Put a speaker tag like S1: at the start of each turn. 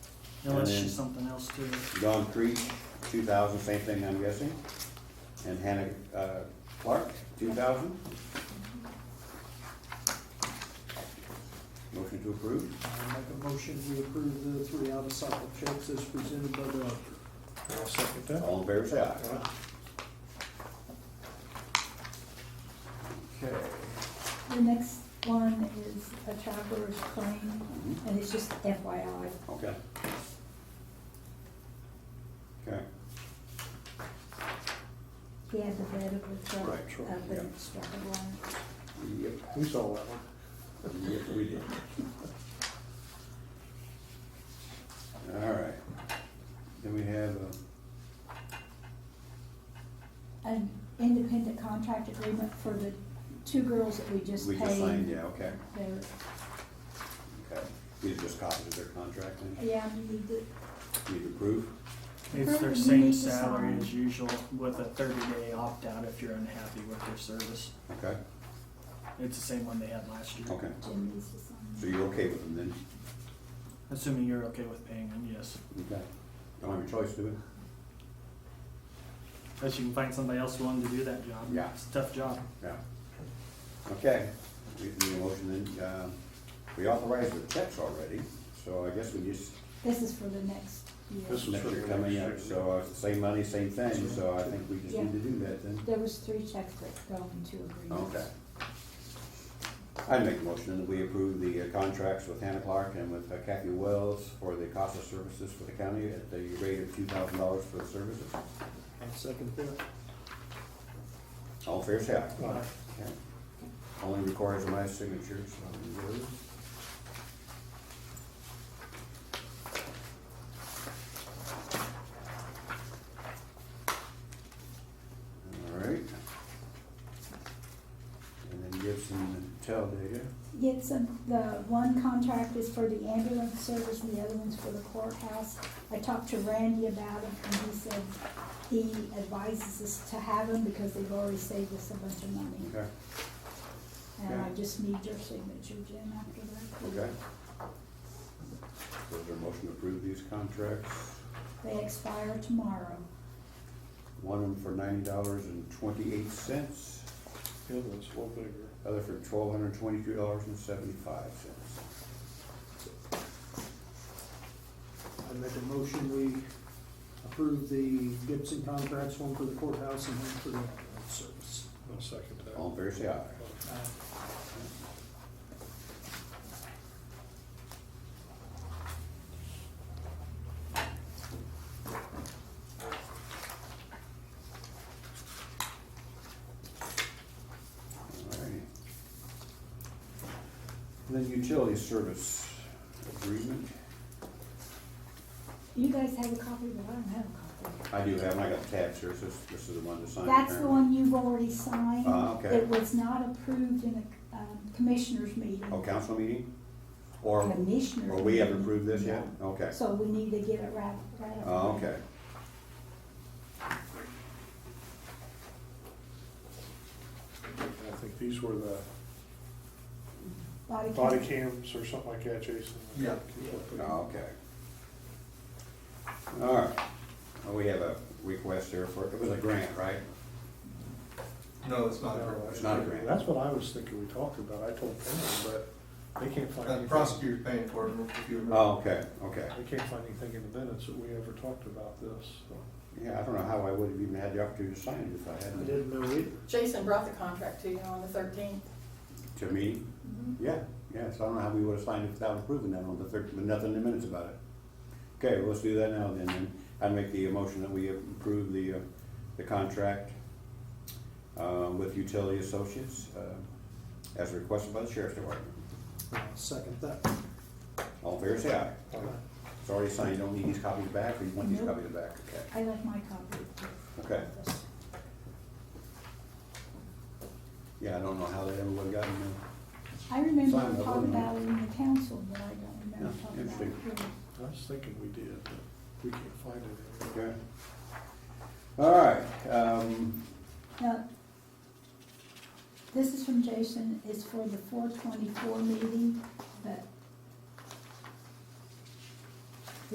S1: Unless
S2: And then-
S1: she's something else too.
S2: John Creed, two thousand, same thing I'm guessing. And Hannah uh, Clark, two thousand. Motion to approve.
S3: I make a motion, we approve the three out-of-cycle checks as presented by the auditor.
S4: I'll second that.
S2: All in favor, say aye.
S3: Okay.
S5: The next one is a traveler's claim,
S2: Mhm.
S5: and it's just FYI.
S2: Okay. Okay,
S5: He had the bed of the truck,
S2: Right, sure,
S5: of the
S2: yeah.
S5: struggle one.
S2: yep,
S4: We saw that one.
S2: yep, we did. All right. Then we have, uh,
S5: An independent contract agreement for the two girls that we just
S2: we
S5: paid.
S2: just signed, yeah, okay,
S5: They're-
S2: okay. These are just copies of their contract then,
S5: Yeah, we need to,
S2: need to approve.
S1: It's their
S5: Perfect, you
S1: same
S5: need to
S1: salary
S5: sign.
S1: as usual with a thirty day opt out if you're unhappy with their service.
S2: okay,
S1: It's the same one they had last year.
S2: okay.
S5: Jim needs to sign.
S2: So you're okay with them then?
S1: Assuming you're okay with paying them, yes.
S2: Okay. Don't have a choice, do we?
S1: Unless you can find somebody else willing to do that job.
S2: Yeah.
S1: It's a tough job.
S2: Yeah. Okay, we need a motion then, uh, we authorized the checks already, so I guess we just,
S5: This is for the next year.
S4: This is-
S2: next year coming up, so uh, same money, same thing, so I think we just need to do that then.
S5: There was three checks that go into agreements.
S2: Okay. I'd make a motion that we approve the uh, contracts with Hannah Clark and with uh, Kathy Wells for the cost of services for the county at the rate of two thousand dollars for the services.
S3: I'll second that.
S2: All fair share.
S4: Aye.
S2: Okay. Only requires my signature, so I'm good. All right. And then Gibson Tell data.
S5: It's a, the one contract is for the ambulance service and the other one's for the courthouse. I talked to Randy about it and he said he advises us to have them because they've already saved us a bunch of money.
S2: Okay,
S5: And I
S2: Okay.
S5: just need your signature, Jim, after that.
S2: okay. Was there a motion to approve these contracts?
S5: They expire tomorrow.
S2: One of them for ninety dollars and twenty-eight cents,
S4: The other one's a little bigger.
S2: other for twelve hundred twenty-two dollars and seventy-five cents.
S3: I make a motion, we approve the Gibson contracts, one for the courthouse and one for the ambulance service.
S4: I'll second that.
S2: All in favor, say aye.
S3: Uh,
S2: Alrighty. And then utility service agreement.
S5: You guys have a copy, but I don't have a copy.
S2: I do have, I got the tabs here, so this, this is the one to sign.
S5: That's the
S2: apparently.
S5: one you've already signed.
S2: Ah, okay.
S5: It was not approved in the um, commissioners meeting.
S2: Oh, council meeting? Or,
S5: Commissioners.
S2: or we haven't
S5: meeting.
S2: approved this yet?
S5: No.
S2: Okay.
S5: So we need to get it right, right up.
S2: Oh, okay.
S4: I think these were the
S5: Body cam.
S4: body cams or something like that, Jason.
S3: Yeah.
S2: Oh, okay. Alright, well, we have a request there for, it was a grant, right?
S6: No, it's not a
S4: No,
S6: grant.
S2: It's not a grant.
S4: That's what I was thinking we talked about. I told Pam, but they can't find
S6: Uh, The
S4: anything.
S6: prosecutor's paying for it, if you remember.
S2: Oh, okay, okay.
S4: They can't find anything in the minutes that we ever talked about this, so.
S2: Yeah, I don't know how I would have even had the opportunity to sign it if I
S3: I
S2: hadn't.
S3: didn't know it.
S7: Jason brought the contract to you on the thirteenth.
S2: To me, yeah, yeah, so I don't know how we would have signed it without approving that on the third, but nothing in the minutes about it. Okay, well, let's do that now then, and I make the motion that we approve the, uh, the contract, uh, with Utility Associates, uh, as requested by the Sheriff's Department.
S3: I'll second that.
S2: All in favor, say aye.
S3: Uh,
S2: It's already signed, you don't need these copies back, or you want these
S5: Nope.
S2: copies back, okay?
S5: I left my copy.
S2: Okay. Yeah, I don't know how they ever would have gotten them.
S5: I remember
S2: Signed
S5: we
S2: up,
S5: talked
S2: wasn't it?
S5: about it in the council, but I don't remember
S2: Yeah,
S5: talking about it.
S2: interesting.
S5: here.
S4: I was thinking we did, but we can't find it.
S2: Okay. All right, um,
S5: Now, this is from Jason, it's for the four twenty-four meeting, but